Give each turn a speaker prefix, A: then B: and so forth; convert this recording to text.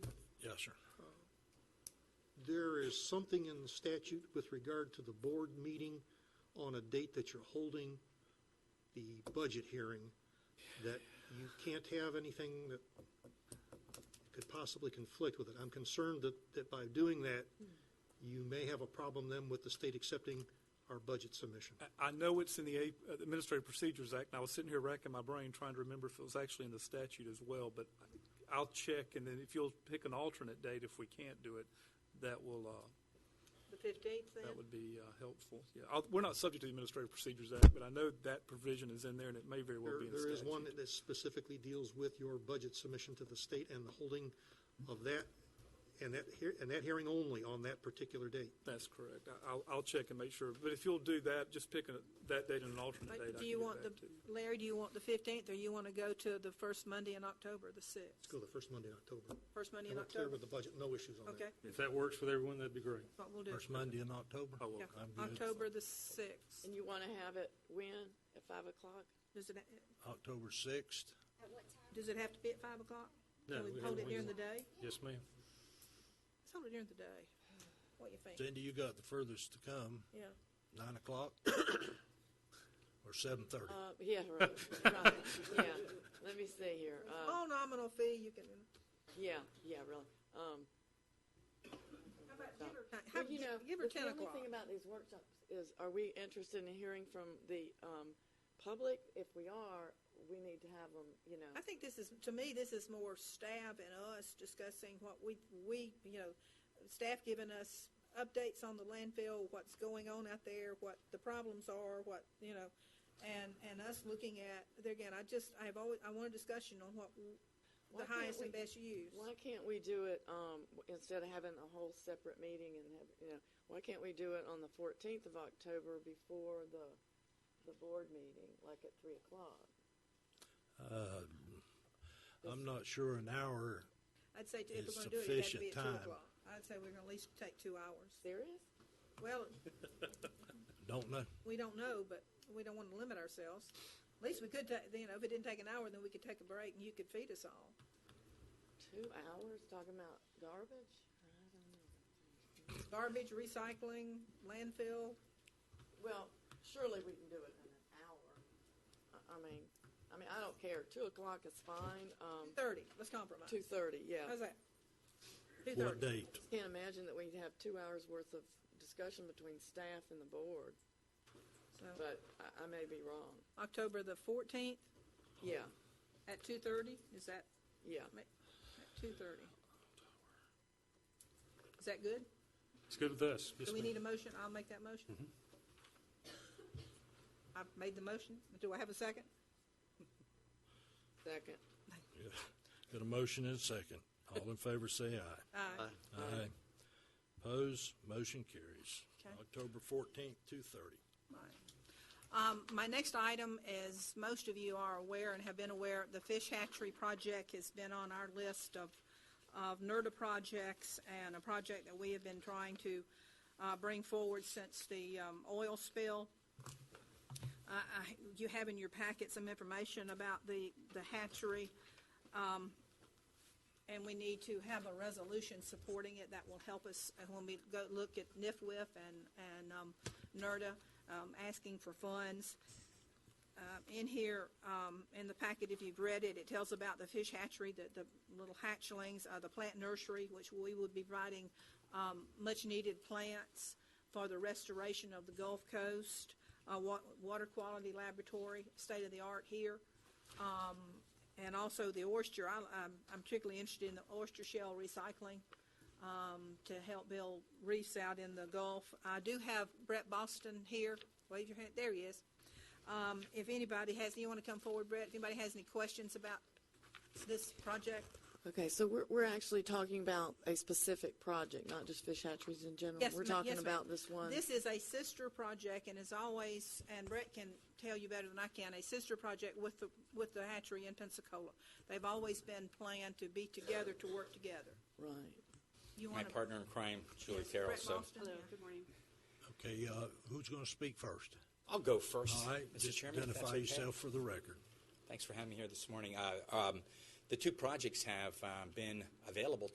A: sir.
B: There is something in the statute with regard to the board meeting on a date that you're holding the budget hearing, that you can't have anything that could possibly conflict with it. I'm concerned that, that by doing that, you may have a problem then with the state accepting our budget submission.
A: I know it's in the A- uh, the Administrative Procedures Act, and I was sitting here racking my brain trying to remember if it was actually in the statute as well, but I'll check, and then if you'll pick an alternate date if we can't do it, that will, uh,
C: The fifteenth
A: that
C: then?
A: would be uh, helpful. Yeah, I'll- we're not subject to the Administrative Procedures Act, but I know that provision is in there, and it may very well
B: There,
A: be in the
B: there
A: statute.
B: is one that specifically deals with your budget submission to the state and the holding of that, and that, hear- and that hearing only on that particular date.
A: That's correct. I- I'll, I'll check and make sure, but if you'll do that, just pick a- that date and an alternate date. I
C: But do
A: can
C: you
A: get
C: want the,
A: back to
C: Larry, do you want the fifteenth, or you want to go to the first Monday in October, the
B: Let's
C: sixth?
B: go the first Monday in October.
C: First Monday
B: And
C: in
B: we're clear
C: October?
B: with the budget, no issues on that.
C: Okay,
D: If that works with everyone, that'd be great.
C: what we'll do.
E: First Monday in October?
A: Oh,
C: Yeah,
A: okay.
E: I'm good.
C: October the sixth.
F: And you want to have it when? At five o'clock?
C: Does it,
E: October 6th?
G: At what time?
C: does it have to be at five o'clock?
D: No,
C: Can
D: we
C: we
D: can
C: hold it
D: always-
C: during the day?
D: Yes, ma'am.
C: Let's hold it during the day. What do you think?
E: Cindy, you got the furthest to come,
C: Yeah.
E: 9 o'clock or 7:30?
F: Uh, yeah, right, right, yeah. Let me see here. Uh,
C: All Oh, nominal fee, you can,
F: yeah, yeah, really. Um,
C: how about
F: No.
C: give her, ti-
F: well,
C: have,
F: you know,
C: give her
F: the-
C: ten
F: The
C: o'clock?
F: only thing about these workshops is, are we interested in hearing from the, um, public? If we are, we need to have them, you know.
C: I think this is, to me, this is more staff and us discussing what we, we, you know, staff giving us updates on the landfill, what's going on out there, what the problems are, what, you know, and, and us looking at, there again, I just, I've always, I want a discussion on what, w-
F: Why
C: the
F: can't
C: highest and
F: we-
C: best use.
F: Why can't we do it, um, w- instead of having a whole separate meeting and have, you know, why can't we do it on the fourteenth of October before the, the board meeting, like at three o'clock?
E: I'm not sure an hour,
C: I'd say if
E: It's
C: we're gonna do it, it had to
E: sufficient
C: be at two
E: time.
C: o'clock. I'd say we're gonna at least take two hours.
F: Serious?
C: Well,
E: don't know.
C: we don't know, but we don't wanna limit ourselves. At least we could ta, you know, if it didn't take an hour, then we could take a break and you could feed us all.
F: Two hours talking about garbage? I don't know.
C: garbage, recycling, landfill.
F: Well, surely we can do it in an hour. I, I mean, I mean, I don't care. Two o'clock is fine. Um,
C: Thirty. Let's compromise.
F: two thirty, yeah.
C: How's that? Two
E: What
C: thirty.
E: date?
F: Can't imagine that we'd have two hours worth of discussion between staff and the board,
C: So
F: but I, I may be wrong.
C: October the fourteenth
F: Yeah,
C: at two thirty. Is that
F: yeah.
C: at two thirty? Is that good?
D: It's good with us. Yes,
C: Do we
D: ma'am. Mm-hmm.
C: need a motion? I'll make that motion. I've made the motion. Do I have a second?
F: Second.
E: Got a motion and a second. All in favor, say aye.
C: Aye.
E: Aye. Pose, motion carries.
C: Okay.
E: October 14th, 2:30.
C: Um, my next item, as most of you are aware and have been aware, the fish hatchery project has been on our list of, of NERDA projects and a project that we have been trying to, uh, bring forward since the, um, oil spill. I, I, you have in your packet some information about the, the hatchery. Um, and we need to have a resolution supporting it that will help us uh, when we go look at NIFWIF and, and, um, NERDA, um, asking for funds. Um, in here, um, in the packet, if you've read it, it tells about the fish hatchery, the, the little hatchlings, uh, the plant nursery, which we would be providing, um, much-needed plants for the restoration of the Gulf Coast, uh, wa- water quality laboratory, state-of-the-art here. Um, and also the oyster, I, I'm, I'm particularly interested in the oyster shell recycling, um, to help build reefs out in the Gulf. I do have Brett Boston here. Wave your hand. There he is. Um, if anybody has, you want to come forward, Brett? If anybody has any questions about this project?
F: Okay, so we're, we're actually talking about a specific project, not just fish hatcheries in general.
C: Yes,
F: We're
C: ma-
F: talking
C: yes, ma'am.
F: about this one.
C: This is a sister project, and as always, and Brett can tell you better than I can, a sister project with the, with the hatchery in Pensacola. They've always been planned to be together, to work together.
F: Right.
C: You
H: My
C: want to?
H: partner in crime, Julie Carroll, so
C: Hello.
E: Okay, uh, who's going to speak first?
H: I'll go first.
E: All right,
H: Mr.
E: just
H: Chairman, if that's
E: identify
H: okay.
E: yourself for the record.
H: Thanks for having me here this morning. Uh, um, The two projects have uh, been available